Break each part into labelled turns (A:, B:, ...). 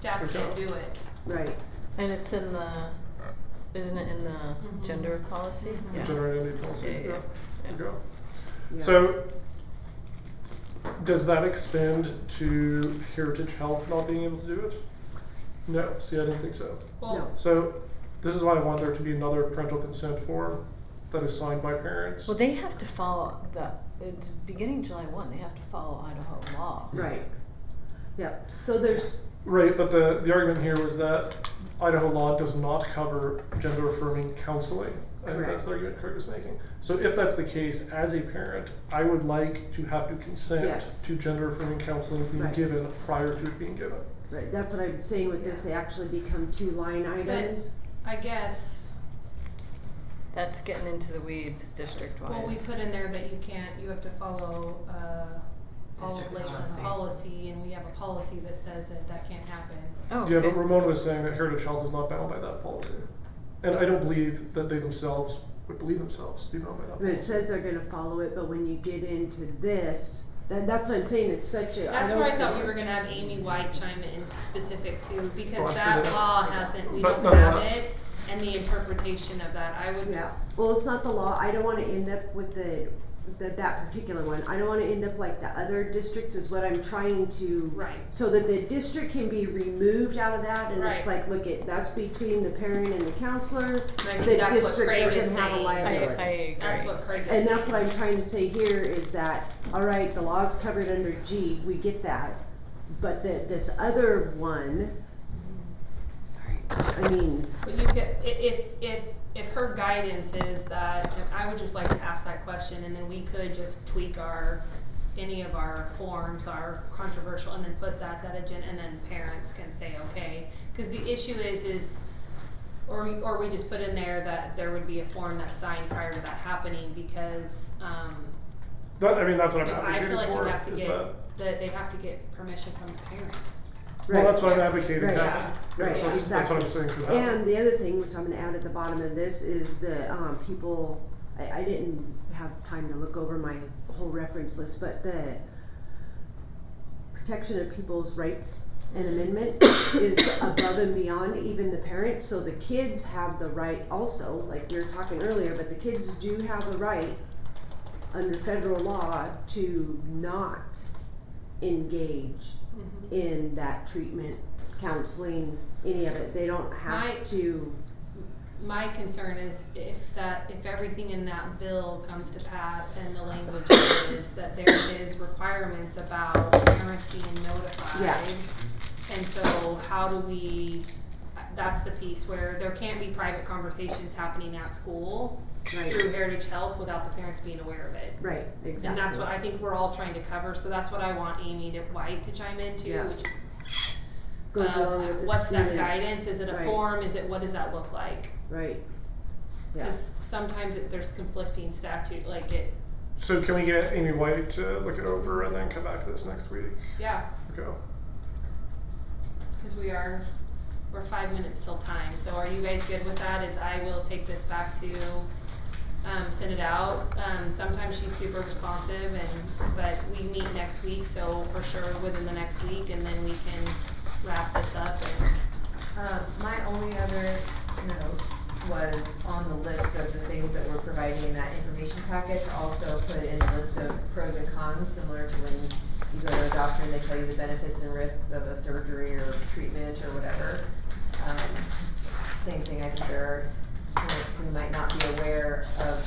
A: staff can't
B: Okay.
A: do it.
C: right,
D: And it's in the, isn't it in the
A: Mhm.
D: gender policy?
A: Mhm.
C: Yeah.
B: Generate any policy.
D: Yeah, yeah,
B: Yeah.
D: yeah.
B: There you go.
C: yeah.
B: So, does that extend to Heritage Health not being able to do it? No, see, I didn't think so.
A: Well,
B: So, this is why I want there to be another parental consent form that is signed by parents.
D: Well, they have to follow the, it's beginning July one, they have to follow Idaho law.
C: Right. Yep, so there's,
B: Right, but the, the argument here was that Idaho law does not cover gender affirming counseling. I think that's
C: Correct.
B: the argument Kurt was making. So if that's the case, as a parent, I would like to have to consent
C: Yes.
B: to gender affirming counseling being
C: Right.
B: given prior to it being given.
C: right, that's what I'm saying with this, they actually become two line items.
A: I guess,
D: That's getting into the weeds district wise.
A: well, we put in there that you can't, you have to follow, uh, all of
E: District
A: Lakeland's
E: policies.
A: policy, and we have a policy that says that that can't happen.
D: Oh,
B: Yeah, but
D: okay.
B: Ramona was saying that Heritage Health is not bound by that policy. And I don't believe that they themselves would believe themselves to be bound by that
C: But it
B: policy.
C: says they're gonna follow it, but when you get into this, that, that's what I'm saying, it's such a, I
A: That's
C: don't.
A: where I thought we were gonna have Amy White chime in specific too,
B: Well,
A: because
B: I'm sure
A: that
B: that-
A: law hasn't, we
B: But
A: don't
B: no,
A: have
B: that's-
A: it, and the interpretation of that, I would,
C: Yeah, well, it's not the law, I don't wanna end up with the, the, that particular one, I don't wanna end up like the other districts is what I'm trying to.
A: right,
C: So that the district can be removed out of that, and it's
A: Right.
C: like, look at, that's between the parent and the counselor,
A: And I
C: The
A: think that's what
C: district
A: Craig is saying.
C: doesn't have a
D: I,
C: liability.
D: I agree.
A: That's what Craig is saying.
C: And that's what I'm trying to say here is that, all right, the law's covered under G, we get that. But the, this other one,
D: Sorry.
C: I mean,
A: But you could, i- if, if, if her guidance is that, and I would just like to ask that question, and then we could just tweak our, any of our forms, our controversial, and then put that, that agenda, and then parents can say, okay. Cause the issue is, is, or, we- or we just put in there that there would be a form that's signed prior to that happening, because, um,
B: That, I mean, that's what I'm
A: I feel
B: advocating
A: like you
B: for,
A: have to
B: is
A: get,
B: that,
A: that they have to get permission from the parent.
B: well,
C: right.
B: that's what I'm advocating,
C: Right.
B: happen.
C: Yeah. Right,
B: That's, that's what I'm saying should happen.
C: And the other thing, which I'm gonna add at the bottom of this, is the, um, people, I, I didn't have time to look over my whole reference list, but the protection of people's rights and amendment is above and beyond even the parents, so the kids have the right also, like we were talking earlier, but the kids do have a right under federal law to not engage
A: Mm-hmm.
C: in that treatment, counseling, any of it. They don't
A: My-
C: have to,
A: My concern is if that, if everything in that bill comes to pass and the language is that there is requirements about parents being notified.
C: Yeah.
A: And so how do we, that's the piece where there can't be private conversations happening at school
C: right,
A: through Heritage Health without the parents being aware of it.
C: right, exactly.
A: And that's what I think we're all trying to cover, so that's what I want Amy to, White to chime into,
C: Yeah.
A: which,
C: Goes
A: um,
C: along with the
A: what's that
C: student-
A: guidance? Is it a
C: Right.
A: form? Is it, what does that look like?
C: Right, yeah,
A: Cause sometimes it, there's conflicting statute, like it,
B: So can we get Amy White to look it over and then come back to this next week?
A: yeah,
B: Okay.
A: cause we are, we're five minutes till time, so are you guys good with that? Is I will take this back to, um, send it out. Um, sometimes she's super responsive and, but we meet next week, so for sure within the next week and then we can wrap this up and.
E: Um, my only other note was on the list of the things that we're providing in that information packet, to also put in a list of pros and cons, similar to when you go to a doctor and they tell you the benefits and risks of a surgery or treatment or whatever. Um, same thing, I think there are parents who might not be aware of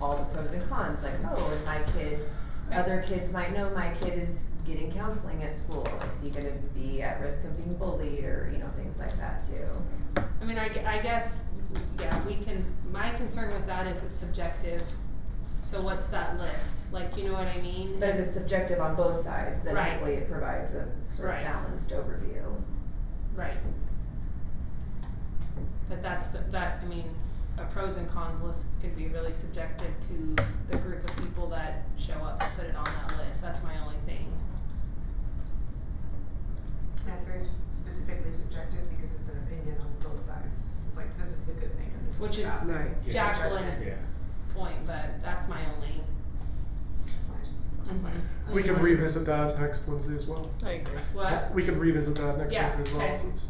E: all the pros and cons, like, oh, and my kid, other kids might know my kid is getting counseling at school, is he gonna be at risk of being bullied or, you know, things like that too.
A: I mean, I, gue- I guess, yeah, we can, my concern with that is it's subjective, so what's that list? Like, you know what I mean?
E: But if it's subjective on both sides, then
A: Right.
E: hopefully it provides a sort
A: Right.
E: of balanced overview.
A: Right. But that's, the- that, I mean, a pros and cons list could be really subjective to the group of people that show up to put it on that list, that's my only thing.
F: Yeah, it's very spe- specifically subjective because it's an opinion on both sides. It's like, this is the good thing and this is the
A: Which is-
F: bad thing.
C: right.
A: Jacqueline's point, but that's my only,
F: I just-
A: That's fine.
B: We can revisit that next Wednesday as well.
D: I agree.
A: What?
B: We could revisit that next
A: Yeah,
B: Wednesday as well,
A: okay.
B: since-